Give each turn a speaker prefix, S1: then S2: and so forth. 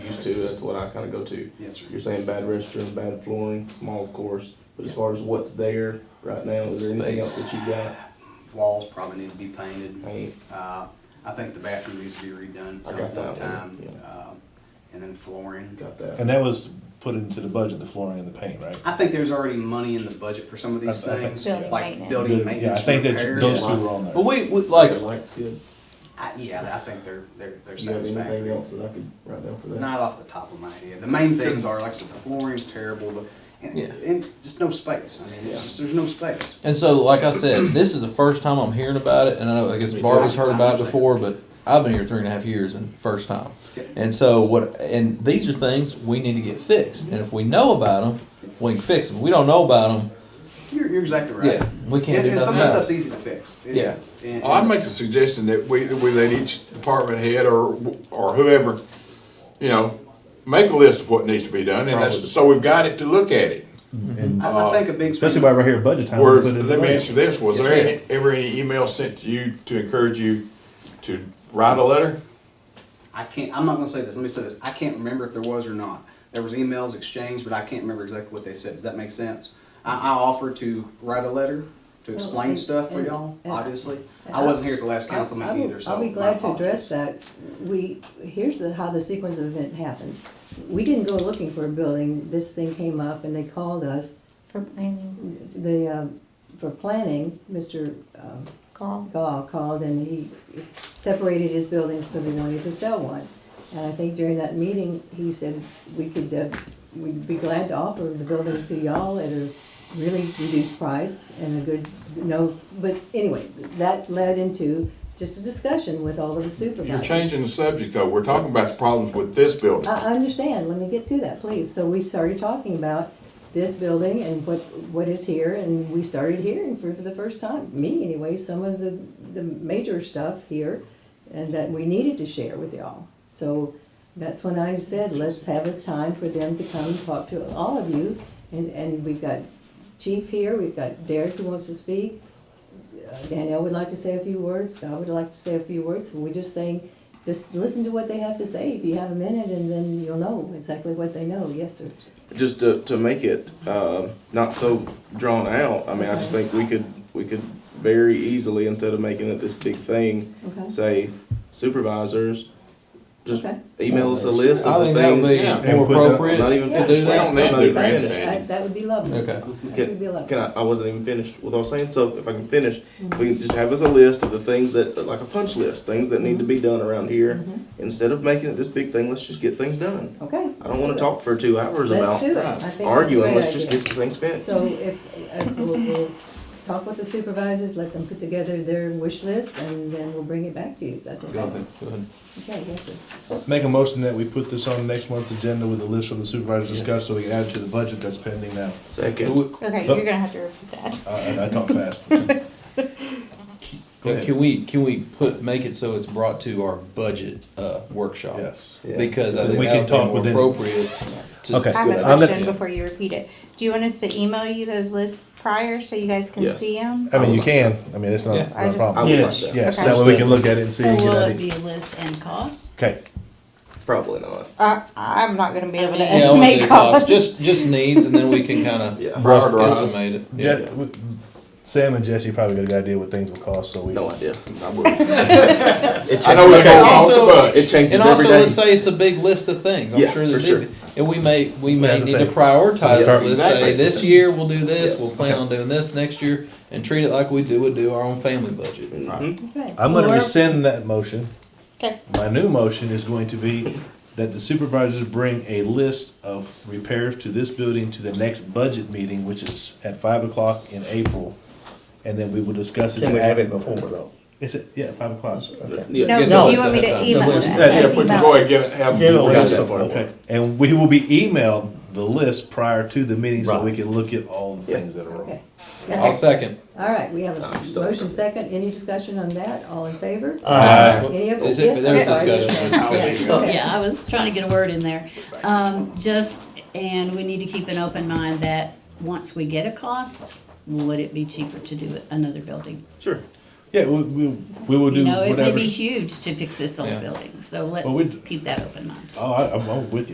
S1: next to, that's what I kinda go to.
S2: Yes, sir.
S1: You're saying bad restrooms, bad flooring, small of course, but as far as what's there right now, is there anything else that you got?
S2: Walls probably need to be painted.
S1: I mean,
S2: Uh, I think the bathroom needs to be redone at
S1: I got
S2: some point in
S1: that one,
S2: time.
S1: yeah.
S2: Uh, And then flooring.
S1: got that.
S3: And that was put into the budget, the flooring and the paint, right?
S2: I think there's already money in the budget for some of these
S3: I- I think-
S2: things,
S3: Building
S2: like
S4: maintenance.
S2: building
S3: Yeah, I
S2: maintenance
S3: think that
S2: repairs.
S3: those two were on
S5: But
S3: there.
S5: we, we like,
S1: Lights good.
S2: I- Yeah, I think they're, they're, they're
S1: You have anything
S2: satisfactory.
S1: else that I could write down for that?
S2: Not off the top of my head. The main things are, like I said, the flooring's terrible, the- and,
S5: Yeah.
S2: and just no space. I mean, it's
S1: Yeah.
S2: just, there's no space.
S5: and so like I said, this is the first time I'm hearing about it, and I know I guess
S1: Me too.
S5: Barbie's heard about it
S2: Understand.
S5: before, but I've been here three and a half years and first time.
S2: Okay.
S5: And so what? And these are things we need to get fixed, and if we know about them, we can fix them. If we don't know about them,
S2: You're, you're exactly right.
S5: Yeah, we can't
S2: And-
S5: do
S2: and Some of
S5: nothing
S2: the
S5: about it.
S2: stuff's easy to fix. It
S5: Yeah. Oh,
S2: is. And-
S6: I'd make the suggestion that we, that we let each department head or, or whoever, you know, make a list of what needs to be done, and that's, so we've got it to look at it.
S3: And
S2: I, I think a big.
S3: Especially while we're here at budget time.
S6: Were,
S3: we put it in the
S6: let me
S3: budget.
S6: ask you this, was
S5: Yes,
S6: there
S5: sir.
S6: any- ever any email sent to you to encourage you to write a letter?
S2: I can't, I'm not gonna say this, let me say this, I can't remember if there was or not. There was emails exchanged, but I can't remember exactly what they said, does that make sense? I, I offered to write a letter to explain
S7: and-
S2: stuff for
S7: and-
S2: y'all,
S7: and-
S2: obviously.
S7: and
S2: I
S7: I-
S2: wasn't here at the last
S7: I-
S2: council
S7: I
S2: meeting
S7: will-
S2: either, so.
S7: I'll be
S2: my
S7: glad to address
S2: apologies.
S7: that. We, here's the, how the sequence of event happened. We didn't go looking for a building, this thing came up and they called us,
S4: for planning
S7: the, uh, for planning, Mr. um,
S4: call.
S7: Gall called and he separated his buildings because he wanted to sell one. And I think during that meeting, he said we could, uh, we'd be glad to offer the building to y'all at a really reduced price and a good, no, but anyway, that led into just a discussion with all of the
S6: You're
S7: supervisors.
S6: changing the subject, though, we're talking about the problems with this building.
S7: Oh, I, I understand, let me get to that, please. So we started talking about this building and what, what is here, and we started hearing for, for the first time, me anyway, some of the, the major stuff here, and that we needed to share with y'all. So that's when I said, let's have a time for them to come and talk to all of you, and, and we've got Chief here, we've got Derek who wants to speak, uh, Danielle would like to say a few words, I would like to say a few words, we're just saying, just listen to what they have to say, if you have a minute, and then you'll know exactly what they know, yes, sir.
S1: just to, to make it uh, not so drawn out. I mean, I just think we could we could very easily instead of making it this big thing,
S7: Okay.
S1: say supervisors, just
S7: Okay.
S1: email us a list
S5: I
S1: of the
S5: think that would
S1: things.
S6: Yeah.
S5: be more
S3: And put that-
S5: appropriate.
S1: Not even
S7: Yeah.
S1: finished.
S5: We don't
S1: I'm not
S6: need to
S1: even
S6: grant
S1: finished.
S6: that.
S7: That, that would be lovely.
S5: Okay.
S7: That would be
S1: Can,
S7: lovely.
S1: can I, I wasn't even finished with what I was saying, so if I can finish, we can just have us a list of the things that, like a punch list, things that need to
S7: Mm-hmm.
S1: be done around here. Instead of making it this big thing, let's just get things done.
S7: Okay.
S1: I don't wanna talk for two hours
S7: Let's do
S1: about
S7: it. I think that's a
S1: arguing,
S7: great
S1: let's just
S7: idea.
S1: get the thing spent.
S7: So if, uh, we'll, we'll talk with the supervisors, let them put together their wish list, and then we'll bring it back to you, that's
S5: Go
S7: okay.
S5: ahead. Go ahead.
S7: Okay, yes, sir.
S3: Make a motion that we put this on next month's agenda with a list for the supervisors to discuss, so we can add it to the budget that's pending now.
S5: Do
S1: Second,
S5: we-
S4: Okay, you're gonna have to repeat that.
S3: I, I- I talk fast. Go
S5: Can
S3: ahead.
S5: can we, can we put, make it so it's brought to our budget uh, workshop?
S3: Yes.
S1: Yeah.
S5: Because I
S3: Then
S5: think
S3: we
S5: that
S3: can talk
S5: would be
S3: within-
S5: more appropriate. to-
S3: Okay.
S4: I have
S3: good.
S4: a
S3: I'll let-
S4: question before you repeat it. Do you want us to email you those lists prior so you guys can
S1: Yes.
S4: see them?
S3: I mean, you can, I mean, it's not
S5: Yeah.
S3: not
S4: I
S3: a
S4: just-
S1: I
S3: problem.
S1: would like
S8: Yes.
S1: that,
S3: Yes, that way we can look at it and see.
S8: So
S3: and get
S8: will
S3: an
S8: it
S3: idea.
S8: be a list and cost?
S3: Okay,
S1: probably not.
S4: I, Uh, I'm not gonna be able to
S8: Yeah,
S5: Yeah, I won't do
S4: estimate
S5: costs,
S4: costs.
S5: uh, just, just needs, and then we can kind of
S1: Yeah.
S6: Prioritize.
S5: estimate it. Yeah.
S3: Yeah, we- Sam and Jesse probably got a good idea what things will cost, so we.
S1: No idea.
S6: I wouldn't.
S1: It
S6: I know
S1: changes-
S6: we're
S5: And
S6: going off the
S5: also-
S6: bus.
S1: It changes
S5: And also,
S1: every
S5: let's
S1: day.
S5: say it's a big list of things, I'm
S1: Yeah,
S5: sure there's
S1: for
S5: big, and we may, we
S3: Yeah,
S5: may
S3: that's
S5: need to
S3: it.
S5: prioritize
S1: Yeah,
S5: this, let's
S6: exactly.
S5: say, this year we'll do this,
S1: Yes.
S5: we'll plan on doing this next year, and treat it like we do, would do our own family budget.
S1: Mhm.
S7: Okay.
S3: I'm gonna
S7: Or-
S3: rescind that motion.
S4: Okay.
S3: My new motion is going to be that the supervisors bring a list of repairs to this building to the next budget meeting, which is at five o'clock in April. And then we will discuss it.
S8: Can we have it before though?
S3: Is it, yeah, five o'clock.
S1: Yeah.
S4: No,
S5: Get
S4: but
S5: the
S4: you
S5: list
S4: want me
S5: ahead
S4: to
S5: of time. uh,
S4: email
S3: list-
S4: them?
S3: yeah,
S6: Yeah, if we can go
S4: Email.
S6: ahead and get it, have.
S8: Get a
S1: Forgot
S8: list
S1: that
S8: of
S1: part.
S3: Okay, and we will be emailed the list prior to the meeting so we
S8: Right.
S3: can look at all the
S1: Yeah.
S3: things that are wrong.
S7: Okay.
S5: I'll second.
S7: All right, we have
S1: I'm
S7: a
S1: still-
S7: motion second, any discussion on that, all in favor?
S3: Uh,
S7: Any of-
S5: Is
S7: yes,
S5: it, there's
S7: I'm sorry.
S5: discussion.
S8: Yeah,
S7: Okay.
S8: yeah, I was trying to get a word in there. Um, just, and we need to keep an open mind that once we get a cost, would it be cheaper to do it another building?
S1: Sure.
S3: Yeah, we, we, we will
S8: You
S3: do
S8: know, it could
S3: whatever.
S8: be huge to fix this
S5: Yeah.
S8: old building, so
S3: Well,
S8: let's
S3: we'd-
S8: keep that open mind.
S3: Oh, I, I'm- I'm with you.